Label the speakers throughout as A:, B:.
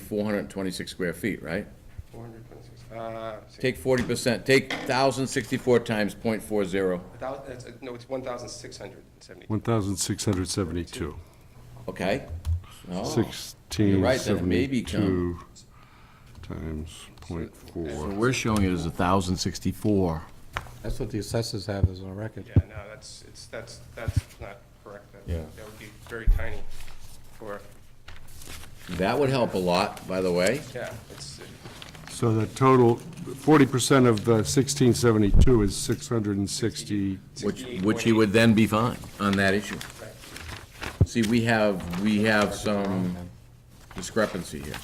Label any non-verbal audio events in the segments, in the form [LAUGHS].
A: four hundred and twenty-six square feet, right?
B: Four hundred twenty-six, uh,
A: Take forty percent, take thousand sixty-four times point four zero,
B: thousand, no, it's one thousand six hundred and seventy.
C: 1,672.
A: okay? Oh. No. You're right, then it may
C: 1672
A: become-
C: times
A: So
C: .4.
A: we're showing it as a thousand sixty-four.
D: That's what the assessors have as a record.
B: Yeah, no, that's, it's, that's, that's not correct. That-
A: Yeah.
B: That would be very tiny for,
A: That would help a lot, by the way.
B: yeah, it's,
C: So the total, 40% of the 1672 is 660,
A: Which, which he would then be fine on that issue. See, we have, we have some discrepancy here.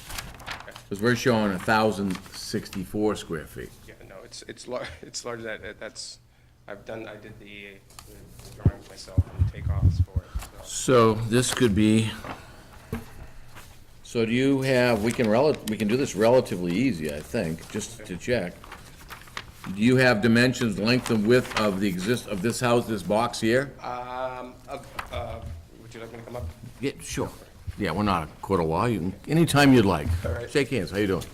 A: Because we're showing a thousand sixty-four square feet.
B: yeah, no, it's, it's lar, [LAUGHS] it's larger than, that- that's, I've done, I did the the drawings myself and takeoffs for it,
A: So
B: so.
A: this could be, so do you have, we can rel, we can do this relatively easy, I think, just to check. Do you have dimensions, length and width of the exist, of this house, this box here?
B: Um, uh, uh, would you like me to come up?
A: Yeah, sure. Yeah, we're not a court of law, you can, anytime you'd like.
B: All right.
A: Shake hands, how you
B: [LAUGHS]
A: doing?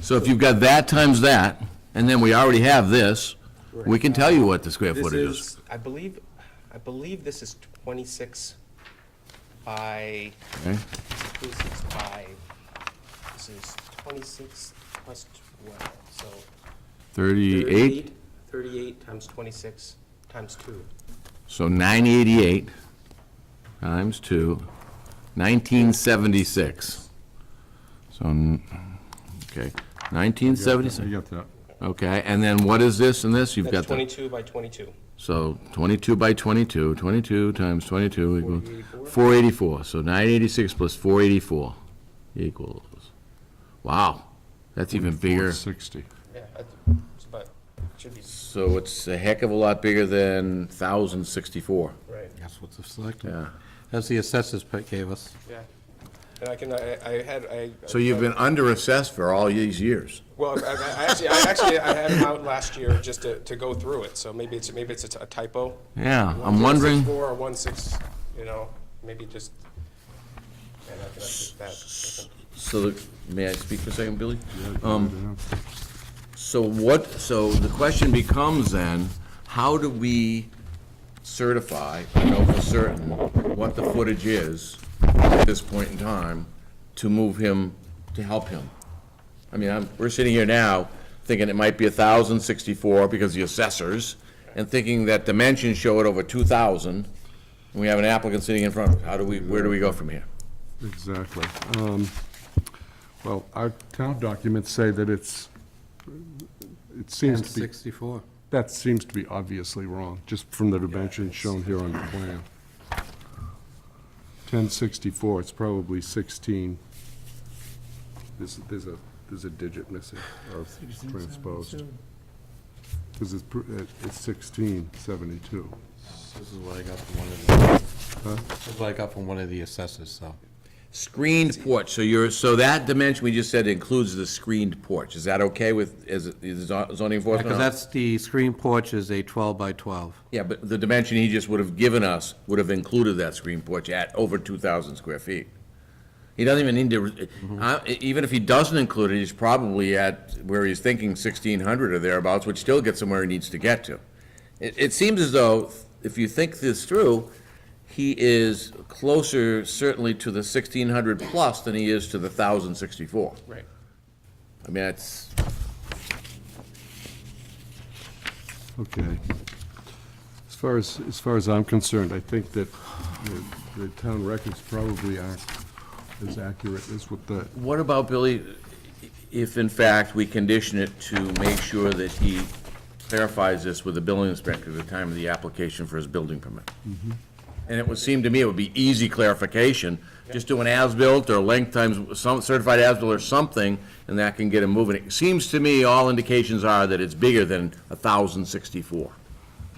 A: So if you've got that times that, and then we already have this, we can tell you what the square
B: This
A: footage is.
B: is, I believe, I believe this is twenty-six by,
A: Okay?
B: twenty-six by, this is twenty-six plus twelve, so.
A: Thirty-eight,
B: Thirty-eight times twenty-six times two.
A: so nine eighty-eight times two, nineteen seventy-six. So, n- okay, nineteen
C: I
A: seventy-six,
C: got that.
A: okay, and then what is this and this? You've
B: That's
A: got the,
B: twenty-two by twenty-two.
A: so twenty-two by twenty-two, twenty-two times twenty-two equals four eighty-four, so nine eighty-six plus four eighty-four equals, wow, that's even bigger.
C: 60.
B: Yeah, that's, it's about, should be.
A: So it's a heck of a lot bigger than thousand sixty-four.
B: Right.
D: That's what the selectmen,
A: Yeah.
D: that's the assessors pick gave us.
B: Yeah. And I can, I, I had, I.
A: So you've been underassessed for all these years.
B: Well, I, I I actually, I actually, I had them out last year just to, to go through it, so maybe it's, maybe it's a t- a typo.
A: Yeah, I'm wondering,
B: 1.64 or one six, you know, maybe just. and I can update that.
A: so, the- may I speak for a second, Billy? Um, So what, so the question becomes then, how do we certify, or know for certain, what the footage is at this point in time to move him, to help him? I mean, I'm, we're sitting here now thinking it might be thousand sixty-four because the assessors, and thinking that dimensions show it over two thousand, and we have an applicant sitting in front of us. How do we, where do we go from here?
C: Exactly. Um, Well, our town documents say that it's, it seems
D: And
C: to be,
D: 64.
C: that seems to be obviously wrong, just from the dimensions shown here on the plan. 1064, it's probably 16. There's, there's a, there's a digit missing, or transposed. Because it's, pr- it's 1672.
D: This is what I got from one of the, this is what I got from one of the assessors, so.
A: Screened porch, so you're, so that dimension we just said includes the screened porch. Is that okay with, is it- is zo- zoning enforcement?
D: Because that's the screen porch is a 12 by 12.
A: Yeah, but the dimension he just would have given us would have included that screened porch at over 2,000 square feet. He doesn't even need to, uh, even if he doesn't include it, he's probably at where he's thinking 1,600 or thereabouts, which still gets him where he needs to get to. It, it seems as though, if you think this through, he is closer certainly to the 1,600 plus than he is to the 1,064.
B: Right.
A: I mean, it's,
C: Okay. As far as, as far as I'm concerned, I think that the- the town records probably aren't as accurate as what the,
A: What about, Billy, if in fact we condition it to make sure that he clarifies this with the building inspector at the time of the application for his building permit? And it would seem to me it would be easy clarification, just do an as-built or length times, some certified as-built or something, and that can get him moving. It seems to me all indications are that it's bigger than thousand sixty-four.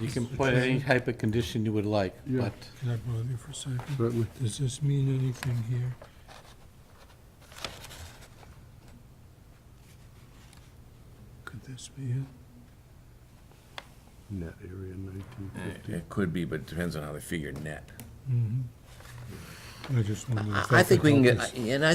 D: You can put any type of condition you would like,
C: Yeah.
D: but
E: Can I bother you for a second?
C: certainly,
E: Does this mean anything here? Could this be it?
C: net
A: Eh.
C: area nineteen fifty.
A: It could be, but it depends on how they figure net.
E: I just wondered if
A: I
E: that
A: think
E: could
A: we can
E: help
A: get,
E: us.
A: and I